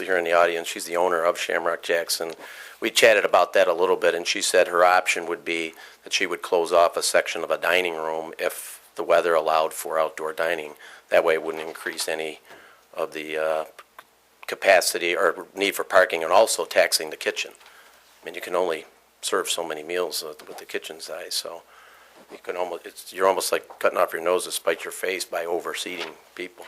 here in the audience, she's the owner of Shamrock Jackson. We chatted about that a little bit, and she said her option would be that she would close off a section of a dining room if the weather allowed for outdoor dining. That way it wouldn't increase any of the uh, capacity or need for parking and also taxing the kitchen. I mean, you can only serve so many meals uh, with the kitchen size, so you can almost, it's, you're almost like cutting off your nose to spite your face by overseating people.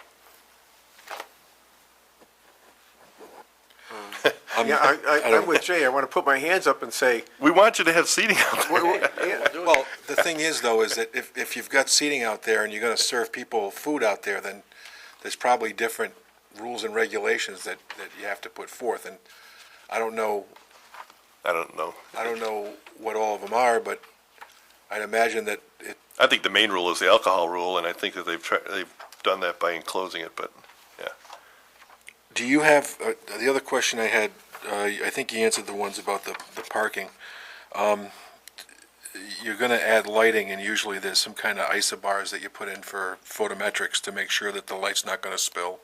Yeah, I, I, I'm with Jay. I want to put my hands up and say, We want you to have seating out there. w- w- yeah, Well, the thing is, though, is that if, if you've got seating out there and you're gonna serve people food out there, then there's probably different rules and regulations that, that you have to put forth, and I don't know, I don't know. I don't know what all of them are, but I'd imagine that it, I think the main rule is the alcohol rule, and I think that they've tried, they've done that by enclosing it, but do you have, uh, the other question I had, uh, I think you answered the ones about the, the parking. Um, You're gonna add lighting, and usually there's some kind of isobars that you put in for photometrics to make sure that the light's not gonna spill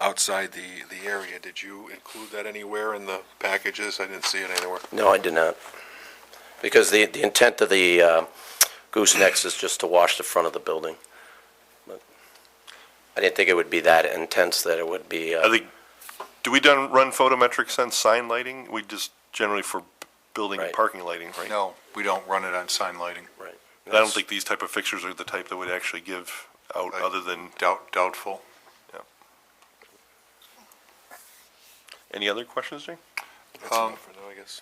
outside the, the area. Did you include that anywhere in the packages? I didn't see it anywhere. No, I did not. Because the, the intent of the uh, goosenecks is just to wash the front of the building. But I didn't think it would be that intense that it would be, I uh, think, do we done, run photometrics on sign lighting? We just generally for building and Right. parking lighting, right? No, we don't run it on sign lighting. And I don't think these type of fixtures are the type that would actually give out, Right. other than, Doubt, doubtful. any other questions, Jay? That's Um, enough for now, I guess.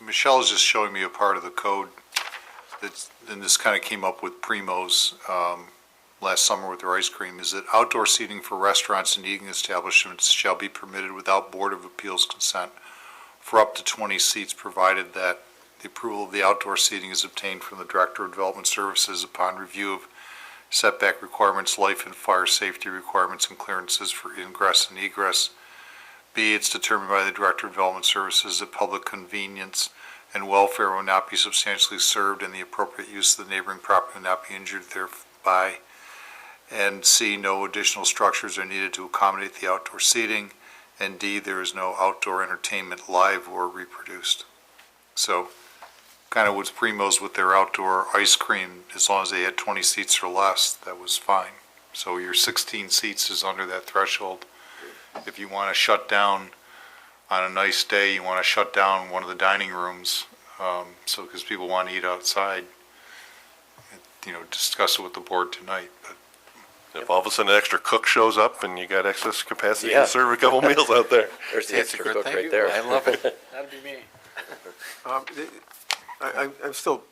Michelle's just showing me a part of the code that's, and this kind of came up with Primo's, um, last summer with their ice cream, is that outdoor seating for restaurants and eating establishments shall be permitted without Board of Appeals consent for up to twenty seats, provided that the approval of the outdoor seating is obtained from the Director of Development Services upon review of setback requirements, life and fire safety requirements, and clearances for ingress and egress. B, it's determined by the Director of Development Services that public convenience and welfare will not be substantially served and the appropriate use of the neighboring property will not be injured thereby. And C, no additional structures are needed to accommodate the outdoor seating. And D, there is no outdoor entertainment live or reproduced. So kind of with Primo's with their outdoor ice cream, as long as they had 20 seats or less, that was fine. So your 16 seats is under that threshold. If you want to shut down on a nice day, you want to shut down one of the dining rooms, um, so, because people want to eat outside, you know, discuss it with the board tonight, but If all of a sudden an extra cook shows up and you got excess capacity Yeah. to serve a couple meals out there. there's the That's a extra good cook thing. right there. I love it. That'd be me. um, th- I, I'm- I'm still,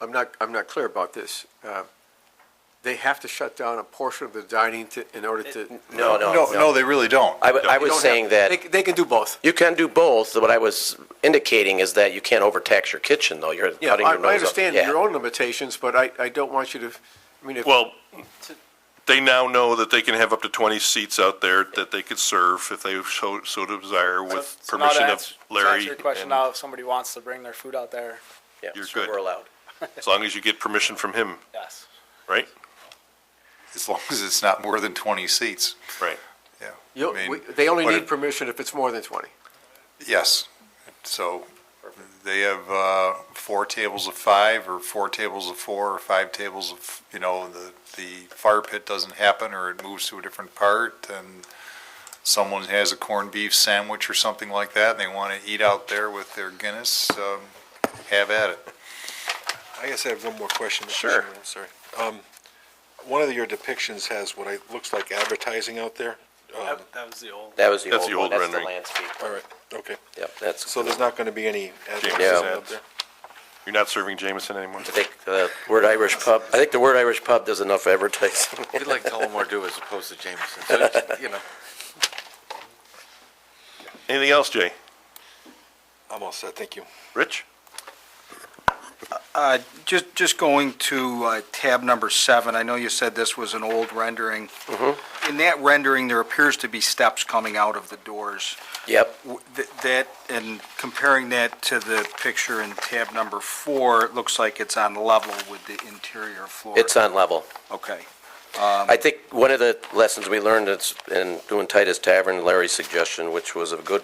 I'm not, I'm not clear about this. Uh, They have to shut down a portion of the dining to, in order to. No, no, No, no, they really don't. I, w- I You don't was have- saying that. They, c- they can do both. You can do both. What I was indicating is that you can't overtax your kitchen, though. You're Yeah, cutting I, your nose up. I understand Yeah. your own limitations, but I, I don't want you to, I mean, if. Well, they now know that they can have up to 20 seats out there that they could serve if they so so desire with So now to permission ans- of Larry. To answer your question and- now, if somebody wants to bring their food out there, Yeah, You're so good. We're allowed. As long as you get permission from him, yes. right? As long as it's not more than 20 seats, Right. yeah. you- I mean, we- They only what need if- permission if it's more than twenty. Yes. So they have uh, four tables of five, or four tables of four, or five tables of, you know, the, the fire pit doesn't happen, or it moves to a different part, and someone has a corned beef sandwich or something like that, and they want to eat out there with their Guinness, um, have at it. I guess I have one more question. Mr. Sure. Chairman, I'm sorry. Um, one of your depictions has what I, looks like advertising out there. Um, That, that was the old. That was the That's the old one. That's old the rendering. landscape. all right, okay. Yep, that's. So there's not gonna be any advertising Yeah. out there? You're not serving Jameson anymore. I think the word Irish pub, I think the word Irish pub does enough advertising. We'd like Tullamore do as opposed to Jameson, so, you know. Anything else, Jay? I'm all set, thank you. Rich? Uh, Just, just going to uh, tab number seven, I know you said this was an old rendering. In that rendering, there appears to be steps coming out of the doors. Yep, W- th- That, and comparing that to the picture in tab number four, it looks like it's on level with the interior floor. it's on level. Okay. I think one of the lessons we learned is in doing Titus Tavern, Larry's suggestion, which was a good